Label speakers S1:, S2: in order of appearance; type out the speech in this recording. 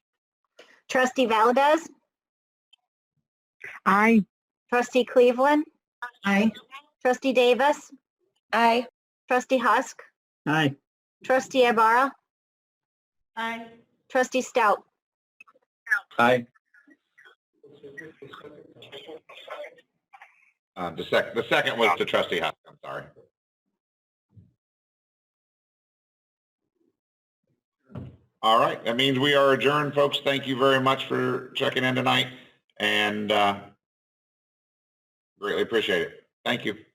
S1: Trustee Valdez?
S2: Aye.
S1: Trustee Cleveland?
S2: Aye.
S1: Trustee Davis? Aye. Trustee Husk?
S2: Aye.
S1: Trustee Ibarra?
S2: Aye.
S1: Trustee Stout?
S3: Aye.
S4: Um, the sec, the second was to trustee Husk, I'm sorry. All right, that means we are adjourned, folks. Thank you very much for checking in tonight and, uh, greatly appreciate it. Thank you.